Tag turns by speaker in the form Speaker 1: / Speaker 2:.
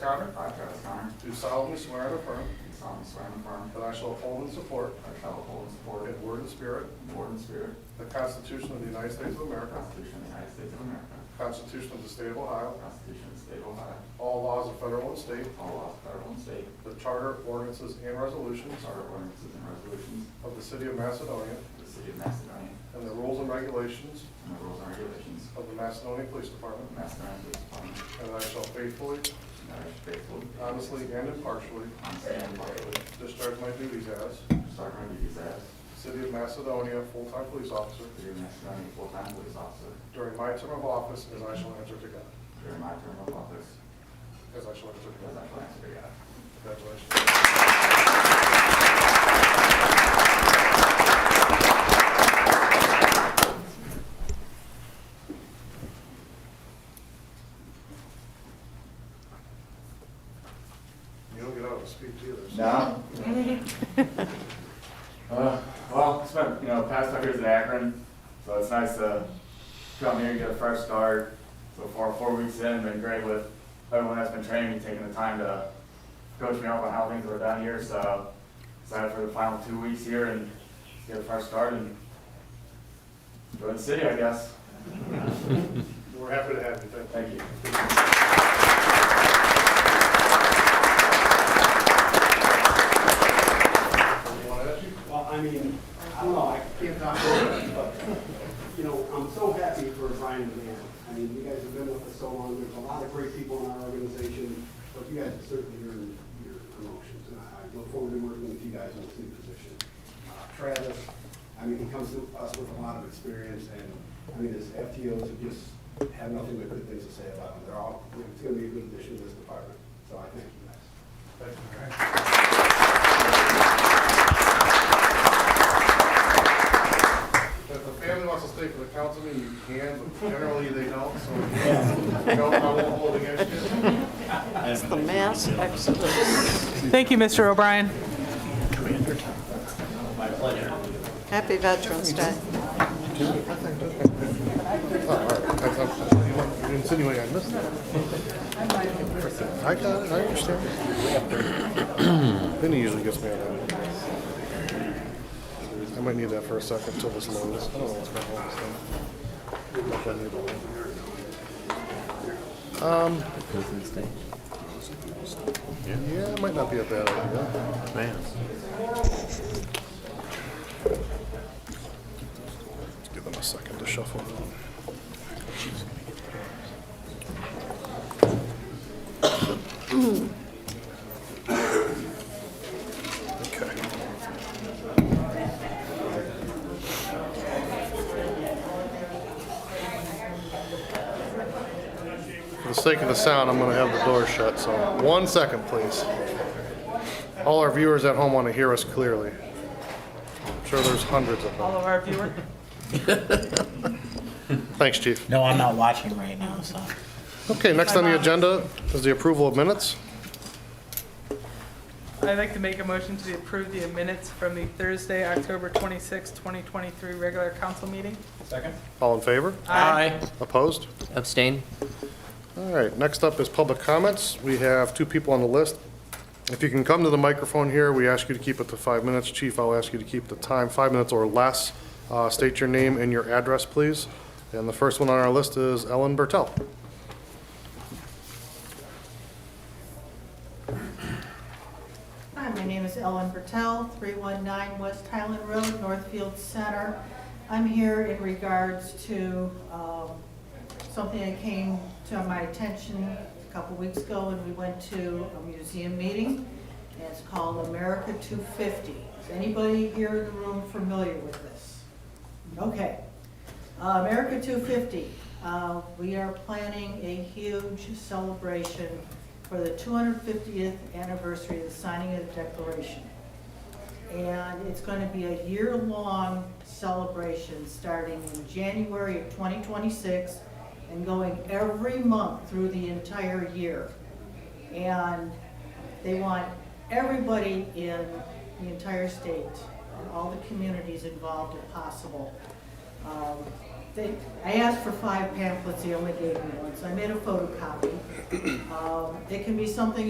Speaker 1: Connor,
Speaker 2: I, Travis Connor,
Speaker 1: do solemnly swear and affirm
Speaker 2: do solemnly swear and affirm
Speaker 1: that I shall uphold and support,
Speaker 2: that I shall uphold and support,
Speaker 1: in word and spirit,
Speaker 2: in word and spirit,
Speaker 1: the Constitution of the United States
Speaker 2: the
Speaker 1: of America,
Speaker 2: Constitution of the United States of America,
Speaker 1: the Constitution of the State of
Speaker 2: the
Speaker 1: Ohio,
Speaker 2: Constitution of the State of Ohio,
Speaker 1: all laws of federal and state,
Speaker 2: all laws of federal and state,
Speaker 1: the charter, ordinances, and resolutions
Speaker 2: charter ordinances and resolutions
Speaker 1: of the City of Macedonia,
Speaker 2: of the City of Macedonia,
Speaker 1: and the rules and regulations
Speaker 2: and the rules and regulations
Speaker 1: of the Macedonia Police
Speaker 2: of
Speaker 1: Department,
Speaker 2: the Macedonia Police Department,
Speaker 1: and that I shall faithfully,
Speaker 2: and that I shall faithfully,
Speaker 1: honestly, and impartially
Speaker 2: honestly, and impartially
Speaker 1: discharge my duties as
Speaker 2: discharge my duties as
Speaker 1: City of Macedonia full-time police officer
Speaker 2: City of Macedonia full-time police officer
Speaker 1: during my term of office as I shall enter to God,
Speaker 2: during my term of office,
Speaker 1: as I shall enter to
Speaker 2: as
Speaker 1: God.
Speaker 2: I shall answer to God.
Speaker 1: Congratulations. You don't get out of speech either. so-
Speaker 2: No. Uh, Well, spent, you know, past five years in Akron, so it's nice to come here and get a fresh start. So far, four weeks in, been great with everyone that's been training me, taking the time to coach me up on how things were done here. So excited for the final two weeks here and get a fresh start and enjoy the city, I guess.
Speaker 1: We're happy to have you. Thank you.
Speaker 2: Thank you.
Speaker 1: You want to ask you?
Speaker 3: Well, I mean, I don't know, I can't talk over it, but, you know, I'm so happy for Brian and Dan. I mean, you guys have been with us so long, there's a lot of great people in our organization, but you guys have certainly earned your promotions, and I I look forward to working with you guys in this new position. Uh, Travis, I mean, he comes to us with a lot of experience, and, I mean, his FTOs have just had nothing but good things to say about him. They're all, it's gonna be a good addition to this department, so I thank you guys.
Speaker 1: Thank you. If the family wants to stay for the council meeting, you can, but generally they don't, so no, I won't hold against you.
Speaker 4: It's the mass exodus.
Speaker 5: Thank you, Mr. O'Brien.
Speaker 4: Happy Veterans Day.
Speaker 1: You're insinuating I missed it. I got it, I understand. Then he usually gets mad at me. I might need that for a second till this loads. I don't know what's going on with this thing. Um. Yeah, it might not be a bad idea. Let's give them a second to shuffle. Okay. For the sake of the sound, I'm going to have the door shut, so one second, please. All our viewers at home want to hear us clearly. I'm sure there's hundreds of them.
Speaker 5: All of our viewers.
Speaker 1: Thanks, chief.
Speaker 6: No, I'm not watching right now, so.
Speaker 1: Okay, next on the agenda is the approval of minutes.
Speaker 5: I'd like to make a motion to approve the minutes from the Thursday, October 26, 2023 regular council meeting.
Speaker 1: All in favor?
Speaker 5: Aye.
Speaker 1: Opposed?
Speaker 7: Abstain?
Speaker 1: All right, next up is public comments. We have two people on the list. If you can come to the microphone here, we ask you to keep it to five minutes. Chief, I'll ask you to keep the time five minutes or less. Uh, State your name and your address, please. And the first one on our list is Ellen Bertel.
Speaker 8: Hi, my name is Ellen Bertel, 319 West Highland Road, Northfield Center. I'm here in regards to um, something that came to my attention a couple weeks ago when we went to a museum meeting. And It's called America 250. Is anybody here in the room familiar with this? Okay. Uh, America 250, uh, we are planning a huge celebration for the 250th anniversary of the signing of the Declaration. And it's going to be a year-long celebration, starting in January of 2026 and going every month through the entire year. And they want everybody in the entire state, all the communities involved if possible. Um, they, I asked for five pamphlets, he only gave me one, so I made a photocopy. Um, It can be something